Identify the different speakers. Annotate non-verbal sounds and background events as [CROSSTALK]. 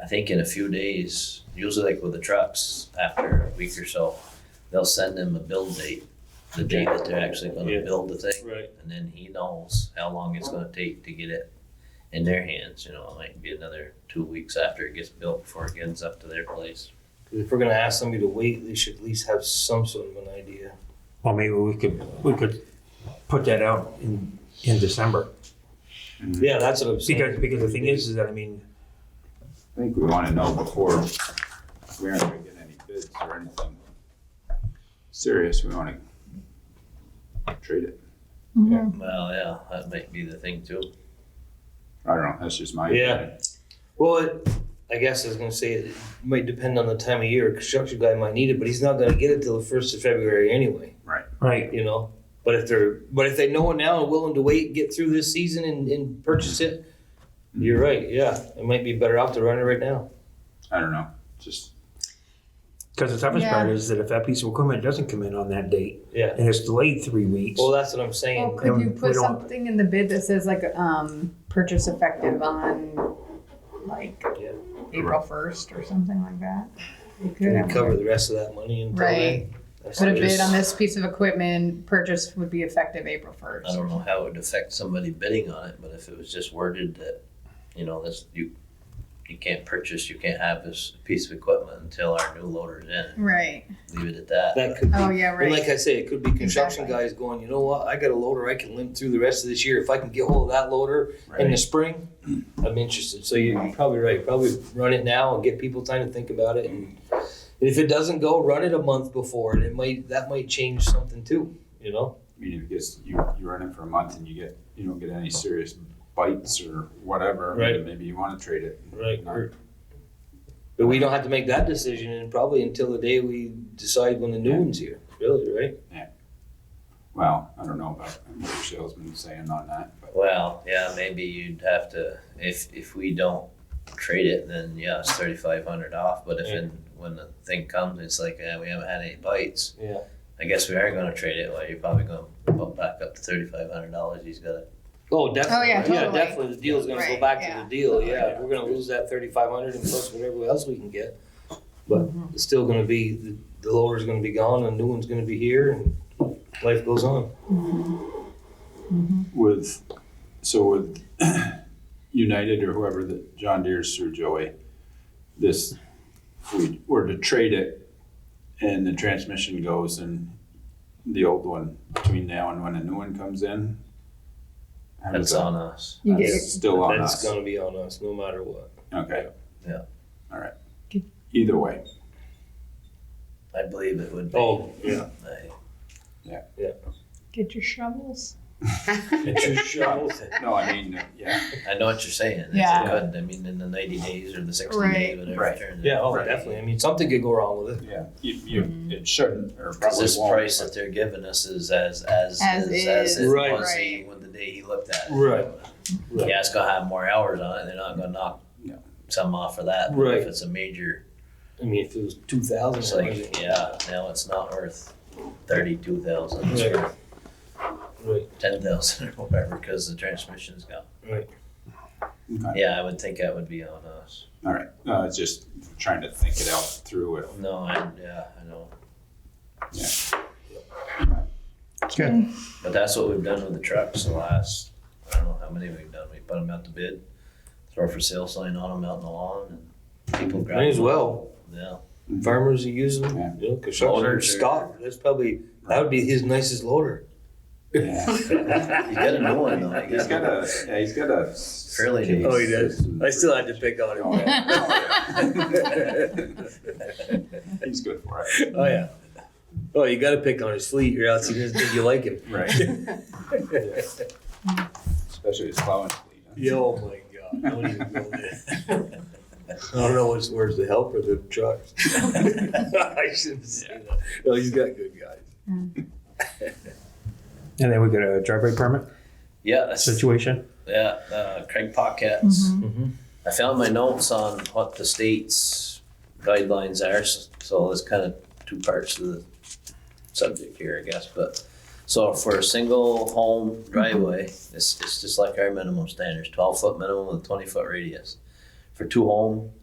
Speaker 1: I think in a few days, usually like with the trucks, after a week or so, they'll send them a build date, the date that they're actually
Speaker 2: Yeah.
Speaker 1: gonna build the thing.
Speaker 2: Right.
Speaker 1: And then he knows how long it's gonna take to get it in their hands, you know, it might be another two weeks after it gets built before it gets up to their place.
Speaker 2: 'Cause If we're gonna ask somebody to wait, they should at least have some sort of an idea.
Speaker 3: Well, maybe we could, we could put that out in, in December.
Speaker 2: Yeah, that's what I'm saying.
Speaker 3: Because, because the thing is, is that, I mean,
Speaker 4: I think we want to know before we aren't going to get any bids or anything serious, we want to treat it.
Speaker 1: Well, yeah, that might be the thing too.
Speaker 4: I don't know, that's just my.
Speaker 2: Yeah.
Speaker 4: opinion.
Speaker 2: Well, it, I guess I was gonna say it might depend on the time of year. Construction guy might need it, but he's not gonna get it till the first of February anyway.
Speaker 3: right,
Speaker 2: You know. But if they're but if they know it now and willing to wait, get through this season and, and purchase it, you're right. Yeah, it might be better off to run it right now.
Speaker 4: I don't know, just,
Speaker 3: because the toughest
Speaker 5: Yeah.
Speaker 3: part is that if that piece of equipment doesn't come in on that date,
Speaker 2: Yeah.
Speaker 3: and it's delayed three weeks,
Speaker 2: Well, that's what I'm saying.
Speaker 5: Well, could
Speaker 3: and
Speaker 5: you
Speaker 3: we
Speaker 5: put
Speaker 3: don't-
Speaker 5: something in the bid that says like, um, purchase effective on like
Speaker 2: Yeah.
Speaker 5: April first or something like that? You could
Speaker 2: Can
Speaker 5: have-
Speaker 2: we cover the rest of that money and
Speaker 5: Right, put a bid on this piece of equipment, purchase would be effective April
Speaker 1: I
Speaker 5: first.
Speaker 1: don't know how it would affect somebody bidding on it, but if it was just worded that, you know, this, you, you can't purchase, you can't have this piece of equipment until our new loader's in,
Speaker 5: Right,
Speaker 1: leave it at that.
Speaker 2: That could be
Speaker 5: oh, yeah,
Speaker 2: And like
Speaker 5: right,
Speaker 2: I say, it could be construction
Speaker 5: Exactly.
Speaker 2: guys going, you know what, I got a loader I can limp through the rest of this year. If I can get hold of that loader in the
Speaker 4: right,
Speaker 2: spring, I'm interested. So you're probably right. Probably run it now and get people time to think about it. And if it doesn't go, run it a month before, and it might that might change something too. You know,
Speaker 4: I mean, if it gets, you, you run it for a month and you get, you don't get any serious bites or whatever.
Speaker 2: Right.
Speaker 4: Maybe you want to trade it.
Speaker 2: right?
Speaker 4: Not-
Speaker 2: But we don't have to make that decision, and probably until the day we decide when the new one's here. Really, right?
Speaker 4: Well, I don't know about what your salesman's saying on that, but
Speaker 1: Well, yeah, maybe you'd have to, if, if we don't trade it, then yeah, it's thirty-five hundred off, but if in, when the thing comes, it's like, eh, we haven't had any bites.
Speaker 2: Yeah.
Speaker 1: I guess we are gonna trade it, well, you're probably gonna bump back up to thirty-five hundred dollars, he's got it.
Speaker 2: Oh, definitely.
Speaker 5: Oh, yeah,
Speaker 2: yeah,
Speaker 5: totally.
Speaker 2: definitely. The deal's going to go
Speaker 5: Right,
Speaker 2: back to
Speaker 5: yeah.
Speaker 2: the deal. Yeah, we're going to lose that thirty-five hundred and plus whatever else we can get. But
Speaker 5: Mm-hmm.
Speaker 2: it's still going to be the, the loader's going to be gone, and a new one's going to be here, and life goes on.
Speaker 4: with, so with [CLEARS THROAT] United or whoever that John Deere's through Joey, this, if we were to trade it and the transmission goes and the old one between now and when a new one comes in. how does
Speaker 1: That's
Speaker 4: that-
Speaker 1: on us.
Speaker 5: you get,
Speaker 4: That's still on
Speaker 2: That's
Speaker 4: us.
Speaker 2: going to be on us, no matter what.
Speaker 4: Okay.
Speaker 1: Yeah.
Speaker 4: All right.
Speaker 5: Okay.
Speaker 4: Either way,
Speaker 1: I believe it would be.
Speaker 2: Oh, yeah.
Speaker 1: I-
Speaker 5: get your shovels.
Speaker 2: Get your shovels.
Speaker 4: no, I mean, yeah,
Speaker 1: I know what you're saying. It's
Speaker 5: Yeah.
Speaker 1: good. I mean, in the 90 days or the 60
Speaker 5: Right.
Speaker 1: days, whatever
Speaker 4: Right.
Speaker 1: it turns
Speaker 2: Yeah, oh,
Speaker 4: Right.
Speaker 2: definitely. I mean, something could go wrong with it.
Speaker 4: yeah, you, you, it shouldn't or
Speaker 1: Because
Speaker 4: probably
Speaker 1: this
Speaker 4: won't.
Speaker 1: price that they're giving us is as as
Speaker 5: As
Speaker 1: as,
Speaker 5: is.
Speaker 1: it
Speaker 2: Right.
Speaker 1: was
Speaker 5: Right.
Speaker 1: when the day he looked at it.
Speaker 2: Right. Right.
Speaker 1: Yeah, it's gonna have more hours on it. They're not gonna knock
Speaker 4: No.
Speaker 1: some off for that. But
Speaker 2: Right.
Speaker 1: If it's a major,
Speaker 2: I mean, if it was two thousand,
Speaker 1: it's like yeah, now it's not worth thirty-two thousand. It's
Speaker 2: Right.
Speaker 1: worth
Speaker 2: Right.
Speaker 1: ten thousand [LAUGHS] or whatever because the transmission's gone.
Speaker 4: Okay.
Speaker 1: Yeah, I would think that would be on us.
Speaker 4: All right. No, it's just trying to think it out through if
Speaker 1: No, I yeah, I know.
Speaker 3: Good.
Speaker 1: But that's what we've done with the trucks the last, I don't know how many we've done. We put them out to bid, throw a for sale sign on them out in the lawn and people grab
Speaker 2: May as
Speaker 1: them.
Speaker 2: well.
Speaker 1: Yeah.
Speaker 2: Farmers who use them,
Speaker 4: Yeah.
Speaker 2: you know, construction.
Speaker 1: Loaders are-
Speaker 2: Scott, that's probably that would be his nicest loader. [LAUGHS]
Speaker 4: Yeah.
Speaker 1: You got a new one though. you
Speaker 4: He's got
Speaker 1: gotta-
Speaker 4: a, yeah, he's got a.
Speaker 1: Fairly nice.
Speaker 2: Oh, he does? I still had to pick on
Speaker 4: Oh,
Speaker 2: him. [LAUGHS]
Speaker 4: yeah. He's good for it.
Speaker 2: Oh yeah. Oh, you got to pick on his fleet, or else he doesn't think you like him. [LAUGHS]
Speaker 4: Right. Especially his plowing fleet. huh?
Speaker 2: Yo, oh my God! Don't even go there. [LAUGHS] I don't know what's worse, the help or the truck. [LAUGHS] I shouldn't say that. No, he's got good guys.
Speaker 3: and then we get a driveway permit
Speaker 1: [LAUGHS] Yeah, that's,
Speaker 3: situation.
Speaker 1: yeah, uh, Craig Pockets.
Speaker 2: Mhm.
Speaker 1: I found my notes on what the state's guidelines are, s- so there's kind of two parts to the subject here, I guess, but. So for a single home driveway, it's, it's just like our minimum standards, twelve foot minimum with twenty foot radius. For two home,